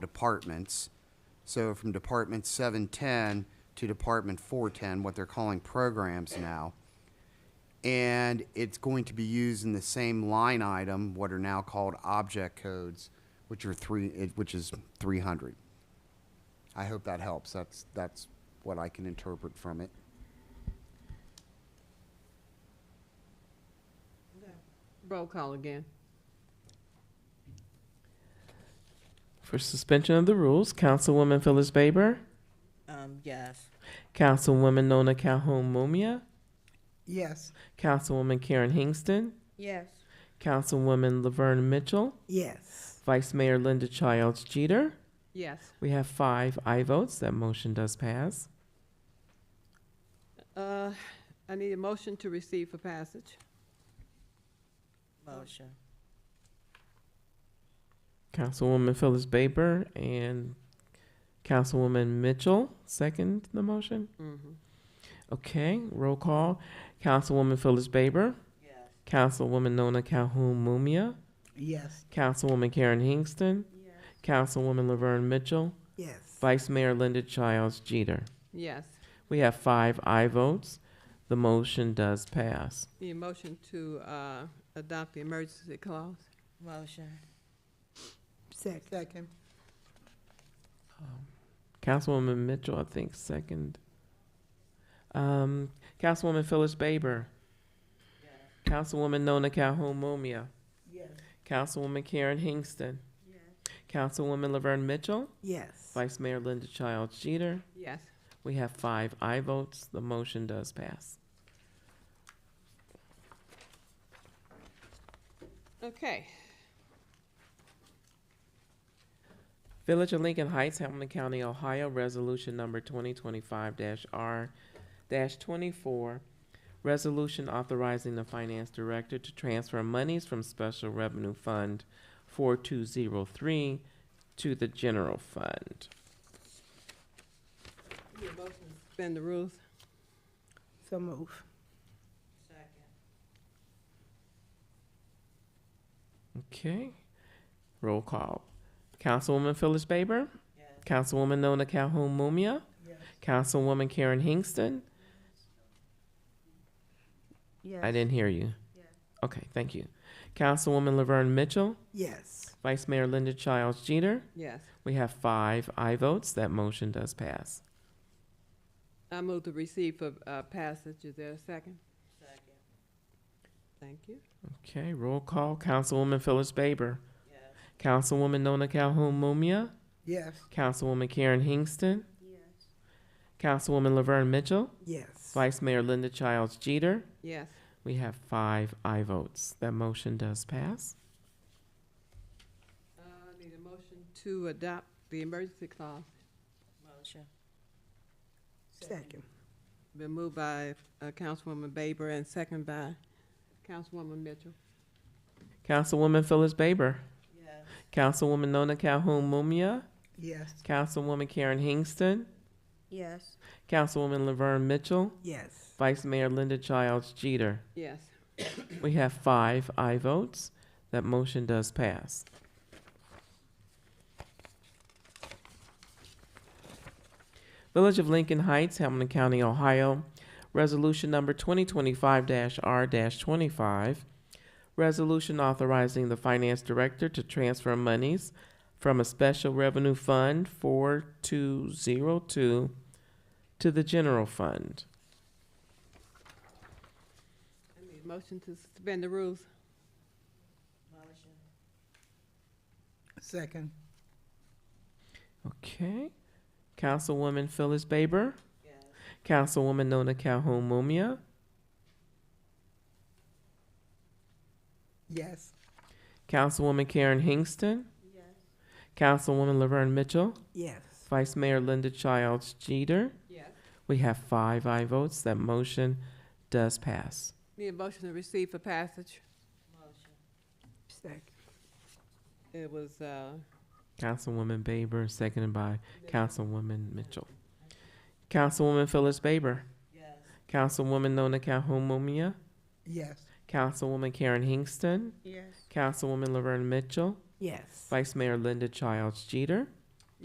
departments. So from Department 710 to Department 410, what they're calling programs now. And it's going to be used in the same line item, what are now called object codes, which are three, it- which is 300. I hope that helps. That's, that's what I can interpret from it. Roll call again. For suspension of the rules, Councilwoman Phyllis Baber, Um, yes. Councilwoman Nona Calhoun Mumia, Yes. Councilwoman Karen Hingston, Yes. Councilwoman Laverne Mitchell, Yes. Vice Mayor Linda Childs Jeter. Yes. We have five aye votes. That motion does pass. Uh, I need a motion to receive for passage. Motion. Councilwoman Phyllis Baber and Councilwoman Mitchell second the motion. Mhm. Okay, roll call. Councilwoman Phyllis Baber, Yes. Councilwoman Nona Calhoun Mumia, Yes. Councilwoman Karen Hingston, Councilwoman Laverne Mitchell, Yes. Vice Mayor Linda Childs Jeter. Yes. We have five aye votes. The motion does pass. Need a motion to uh, adopt the emergency clause. Motion. Second. Second. Councilwoman Mitchell, I think, second. Um, Councilwoman Phyllis Baber. Councilwoman Nona Calhoun Mumia. Yes. Councilwoman Karen Hingston. Councilwoman Laverne Mitchell. Yes. Vice Mayor Linda Childs Jeter. Yes. We have five aye votes. The motion does pass. Okay. Village of Lincoln Heights, Hamilton County, Ohio, Resolution Number 2025-R-24, Resolution authorizing the Finance Director to transfer monies from Special Revenue Fund 4203 to the General Fund. Need a motion to suspend the rules. So move. Okay. Roll call. Councilwoman Phyllis Baber. Yes. Councilwoman Nona Calhoun Mumia. Yes. Councilwoman Karen Hingston. Yes. I didn't hear you. Okay, thank you. Councilwoman Laverne Mitchell. Yes. Vice Mayor Linda Childs Jeter. Yes. We have five aye votes. That motion does pass. I move to receive for uh, passage. Is there a second? Second. Thank you. Okay, roll call. Councilwoman Phyllis Baber. Yes. Councilwoman Nona Calhoun Mumia. Yes. Councilwoman Karen Hingston. Councilwoman Laverne Mitchell. Yes. Vice Mayor Linda Childs Jeter. Yes. We have five aye votes. That motion does pass. Uh, Need a motion to adopt the emergency clause. Motion. Second. Been moved by uh, Councilwoman Baber and second by Councilwoman Mitchell. Councilwoman Phyllis Baber. Yes. Councilwoman Nona Calhoun Mumia. Yes. Councilwoman Karen Hingston. Yes. Councilwoman Laverne Mitchell. Yes. Vice Mayor Linda Childs Jeter. Yes. We have five aye votes. That motion does pass. Village of Lincoln Heights, Hamilton County, Ohio. Resolution number 2025-R-25. Resolution authorizing the finance director to transfer monies from a special revenue fund 4202 to the general fund. I need a motion to suspend the rules. Motion. Second. Okay. Councilwoman Phyllis Baber. Yes. Councilwoman Nona Calhoun Mumia, Yes. Councilwoman Karen Hingston, Yes. Councilwoman Laverne Mitchell, Yes. Vice Mayor Linda Childs Jeter. Yes. We have five aye votes. That motion does pass. Need a motion to receive for passage. Motion. Second. It was, uh, Councilwoman Baber, seconded by Councilwoman Mitchell. Councilwoman Phyllis Baber, Yes. Councilwoman Nona Calhoun Mumia, Yes. Councilwoman Karen Hingston, Yes. Councilwoman Laverne Mitchell, Yes. Vice Mayor Linda Childs Jeter.